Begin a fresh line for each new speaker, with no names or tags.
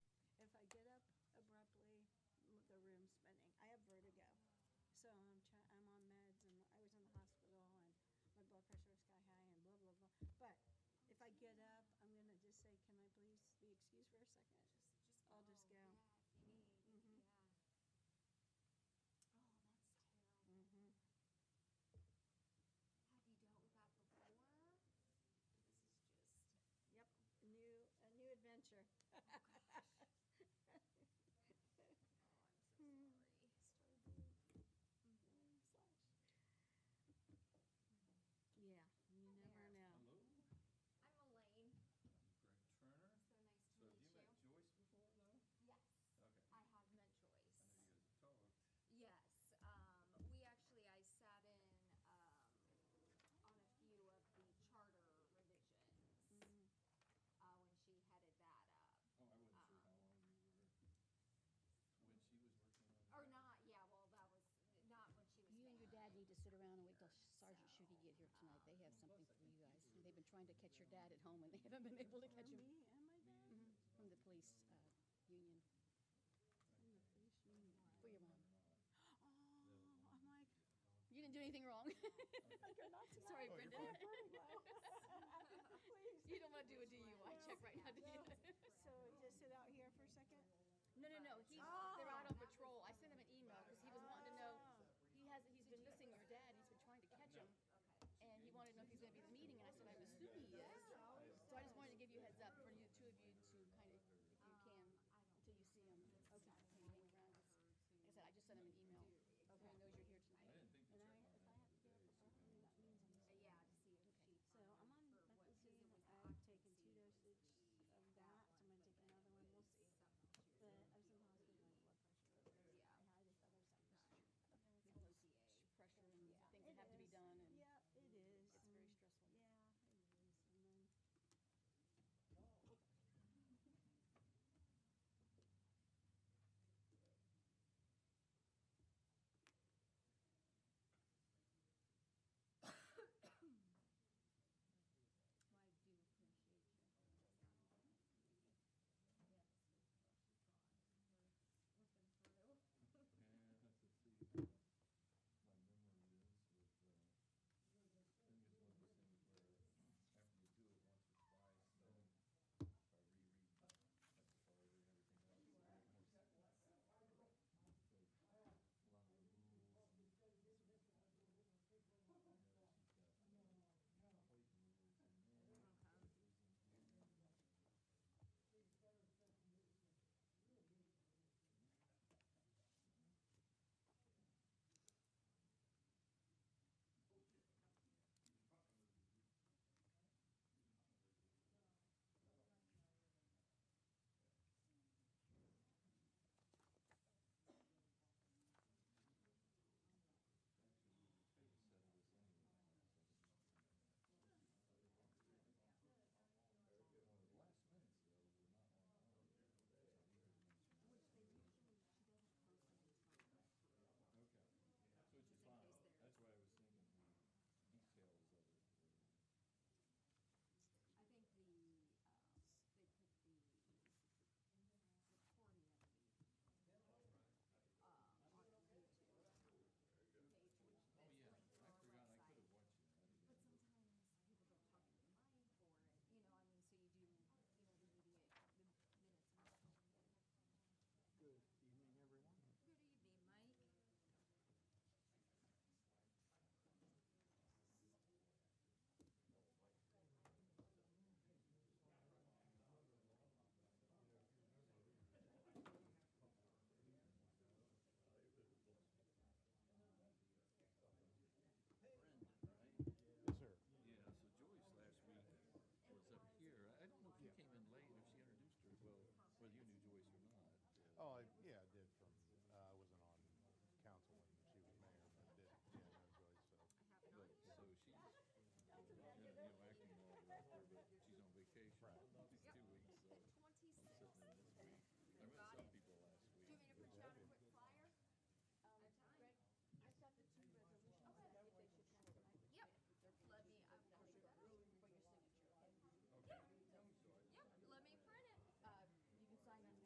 please for a second?
Just, just
I'll just
go.
go.
Oh, Yeah, if you
Mhm.
need, yeah. Oh, that's terrible.
Mm-hmm.
Have you dealt with that before? This is just,
Yep, a new, a new adventure.
oh, I'm so
Hmm.
sorry.
Yeah, you never
There.
know.
Hello,
I'm
I'm Greg
Elaine,
Turner.
Mm-hmm.
so nice
So
to
have
meet
you
you.
met Joyce before, though?
Yes,
Okay,
I
Hmm.
have met
I know
Joyce.
you guys have talked.
Yes, um, we actually, I sat in, um, on a
Mm-hmm.
few of the charter revisions,
Mhm.
Oh,
uh, when she headed that up.
I wasn't sure
Uh-uh.
how long you were, when she was working on it.
Or not, yeah, well, that was, not when she was
You and your
mayor.
dad need to sit around and wait till Sergeant Shooty get here tonight. They have
Well,
something
plus I think
for you guys.
people
They've been trying to catch your
down
dad at home and they haven't been able to catch
From
him
me and my
Me
dad,
and
Mhm,
his
from the
mom,
police,
you know,
uh, union.
from the police union.
For your mom.
Oh, I'm like,
You didn't do anything wrong.
like you're not tonight.
Sorry,
Oh, you're
Brenda.
Please.
You don't want to do a DUI check right now, do you?
um,
So just sit out here for a second?
No, no, no. He's,
Oh, Uh,
Oh,